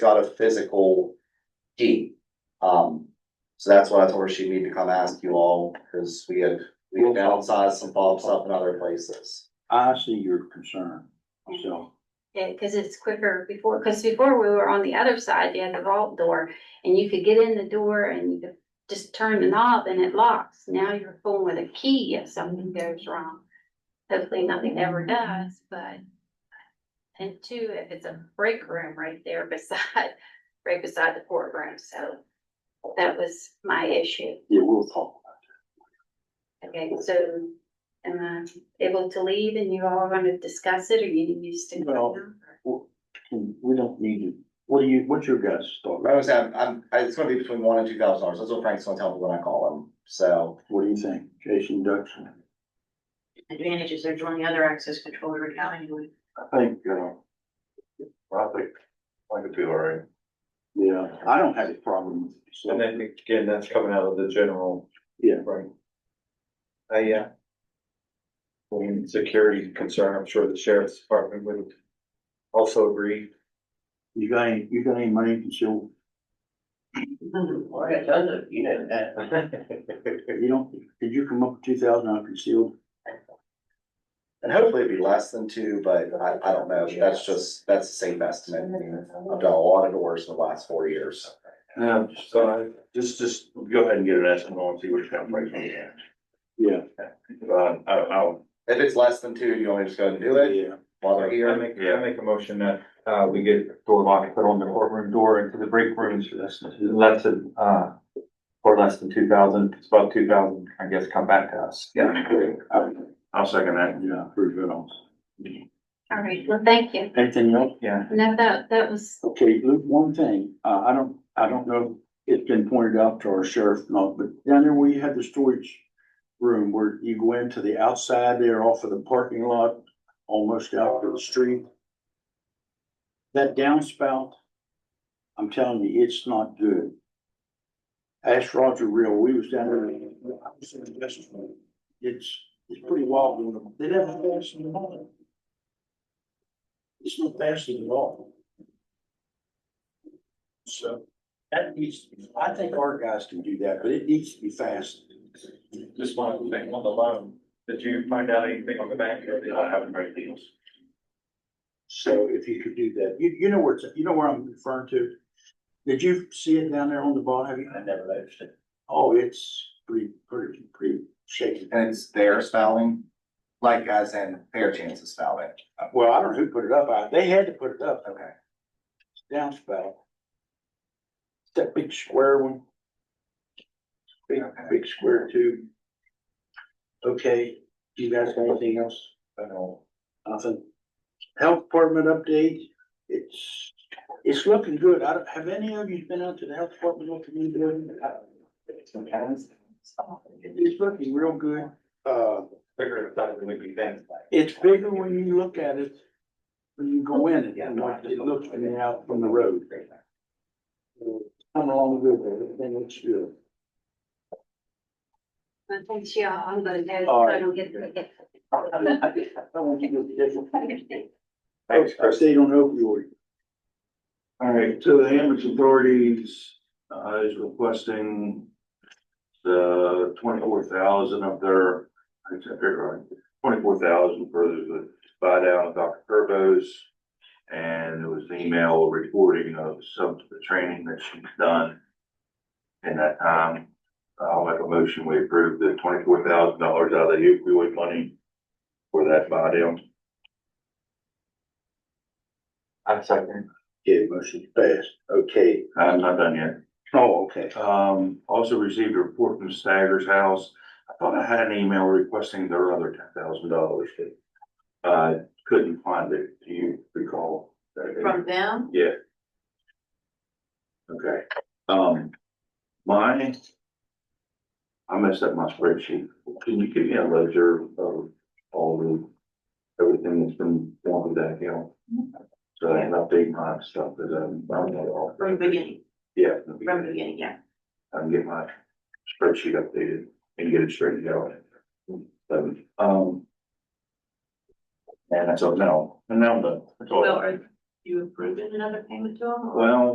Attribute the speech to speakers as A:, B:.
A: got a physical key. Um, so that's why I told her she'd need to come ask you all, because we had, we had downsized some bulbs up in other places.
B: I see your concern, so.
C: Yeah, because it's quicker before, because before we were on the other side, you had the vault door and you could get in the door and you could just turn the knob and it locks. Now you're fooling with a key if something goes wrong. Hopefully nothing ever does, but. And two, if it's a break room right there beside, right beside the courtroom, so that was my issue.
B: Yeah, we'll talk
C: Okay, so am I able to leave and you all are gonna discuss it or you need me to stick
B: Well,
C: around?
B: about it. We don't need to, what do you, what's your guys' thought?
A: I was, I'm, I'm, it's gonna be between one and two thousand dollars, that's what Frank's gonna tell me when I call him, so.
B: What do you think, Jason Dutton?
D: advantages they're joining other access control every county would.
B: I think, uh,
E: I think, I could be all right.
B: yeah, I don't have a problem with it. so-
F: And then again, that's coming out of the general.
B: Yeah.
F: Right. I, yeah. I mean, security concern, I'm sure the sheriff's department would also agree.
B: You got any, you got any money to show,
E: Well, I got tons of, you know that.
B: you don't, did you come up with two thousand on concealed?
A: And hopefully it'd be less than two, but I, I don't know, that's just, that's the same estimate. I've done a lot of doors in the last four years.
F: Yeah. Um, So I,
E: Just, just go ahead and get an estimate on, see what kind of price we have.
B: Yeah.
E: Uh, I, I'll,
A: If it's less than two, you want me to just go ahead and do it
B: Yeah.
A: while
F: I
A: they're
F: make, I
A: here?
F: make a motion that, uh, we get door lock put on the courtroom door into the break rooms for this, less than, uh, for less than two thousand, it's about two thousand, I guess, come back to us.
E: yeah,
B: I-
E: I'll second that.
B: Yeah, pretty good on.
C: All right, well, thank you.
B: Anything else?
F: Yeah.
C: No, that, that was,
B: Okay, Luke, one thing, uh, I don't, I don't know, if it's been pointed out to our sheriff, no, but down there where you had the storage room, where you go into the outside there off of the parking lot, almost out to the street. That downspout, I'm telling you, it's not good. Ask Roger Real, we was down there, I was in the business, it's, it's pretty wild doing them, they never fasten it on. It's not fastened at all. So that needs, to be I think our guys can do that, but it needs to be fast.
F: Just one thing on the loan, did you find out anything on the back?
E: I haven't heard deals.
B: So if you could do that, you, you know where it's, you know where I'm referring to? Did you see it down there on the bottom? Have you?
E: I never noticed it.
B: Oh, it's pretty, pretty, pretty shaky.
A: And it's their spelling, like as in fair chance of spelling.
B: Well, I don't know who put it up. I, they had to put it up,
A: Okay.
B: downspout. That big square one. Big, big square tube. Okay, do you guys have anything else?
E: I know.
B: Nothing. Health department update, it's, it's looking good. I don't, have any of you been out to the health department looking at the building? It's looking real good. Uh,
F: Figure it out, it would be things like.
B: it's bigger when you look at it. When you go in it, and what it looks when you're out from the road. Coming along good, there. everything looks good.
C: I think she, uh, I'm gonna go,
B: All
C: so
B: right.
C: I don't get to get.
B: I want you to get different.
F: Thanks, Chris.
B: Update on opioid.
G: All right, so the Ambridge authorities, uh, is requesting the twenty-four thousand of their, I said, twenty-four thousand for the buy down of Dr. Turbos. And there was an email reporting of some of the training that she's done in that time. I'll make a motion, we approve the twenty-four thousand dollars out of the opioid money for that buy down.
F: I'm second.
B: Yeah, motion passed. Okay.
G: I'm not done yet.
B: Oh, okay.
G: Um, also received a report from Staggers House. I thought I had an email requesting their other ten thousand dollars, but uh, couldn't find it. Do you recall? that?
D: From them,
G: Yeah. Okay, um, my, I messed up my spreadsheet. Can you give me a ledger of all the, everything that's been wanted that, you know? So I can update my stuff that I'm, I'm not all.
D: from the beginning,
G: Yeah.
D: from the beginning, yeah.
G: I can get my spreadsheet updated and get it straightened out. So, um. And that's all now, and now I'm done. That's all.
D: Well, are you approving another payment to them? or-
G: Well,